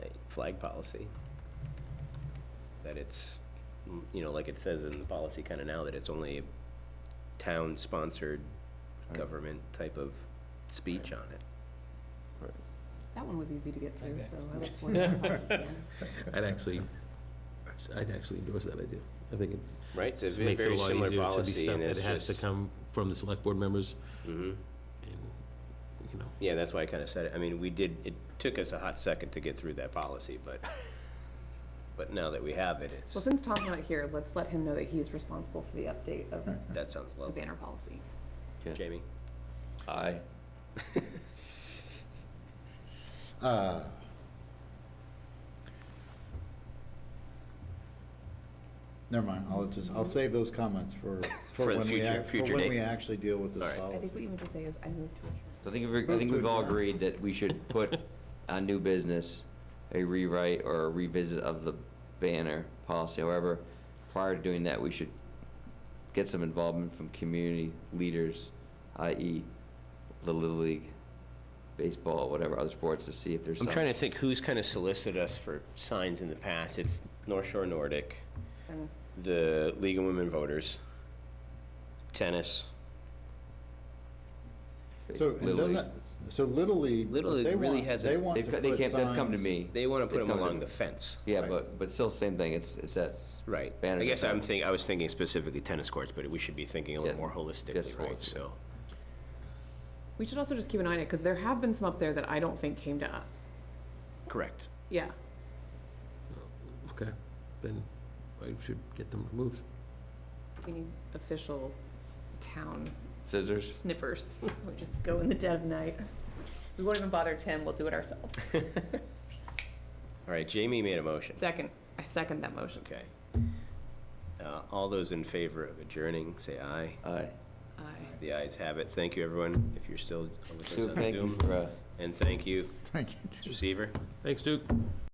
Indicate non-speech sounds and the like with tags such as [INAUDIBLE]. flag policy. That it's, mm, you know, like it says in the policy kind of now, that it's only a town-sponsored government type of speech on it. That one was easy to get through, so I look forward to that process again. I'd actually, I'd actually endorse that idea. I think it Right, so it's a makes it a very lot similar easier to be policy, stuff and that it's has to just, come from the select board members Mhm. and, you know, yeah, that's why I kind of said it, I mean, we did, it took us a hot second to get through that policy, but, but now that we have it, Well, it's, since Tom's not here, let's let him know that he's responsible for the update of the that sounds lovely. banner policy. Jamie? Aye. Uh, Never mind, I'll just, I'll save those comments For for, the for when we, future- ac- for future when date. we actually deal with All this right. I I think what policy. you meant to say is, I move to adjourn. So I think, we've- I think we've all agreed that we should put on new business a rewrite or a revisit of the banner policy. However, prior to doing that, we should get some involvement from community leaders, i.e. the Little League, baseball, whatever, other sports, to see if there's I'm some. trying to think who's kind of solicited us for signs in the past. It's North Shore Nordic, Dennis, the League of Women Voters, tennis. So, it Little League. doesn't, so Little League, Little what League they really want, hasn't- they want to They've, put co- signs. they came, they've come to me. They want to put They've them come to along me. the fence. Yeah, Right. but, but still same thing, it's, it's that, Right. I Banners guess are I'm down. thinking, I was thinking specifically tennis courts, but we should be thinking a little Yeah, more yes, holistically, right? holistic. So, We should also just keep an eye on it, because there have been some up there that I don't think came to us. correct. Yeah, okay, then I should get them removed. we need official town scissors. [LAUGHS] snippers. We just go in the dead of night. We won't even bother Tim, we'll do it ourselves. All right, Jamie made a motion. Second, I second that motion. Okay. Uh, All those in favor of adjourning, say aye. Aye. Aye. The ayes have it. Thank you, everyone, if you're still with us Sue, on thank you Zoom. for, uh, And thank you, [LAUGHS] Thank you. receiver. Thanks, Duke.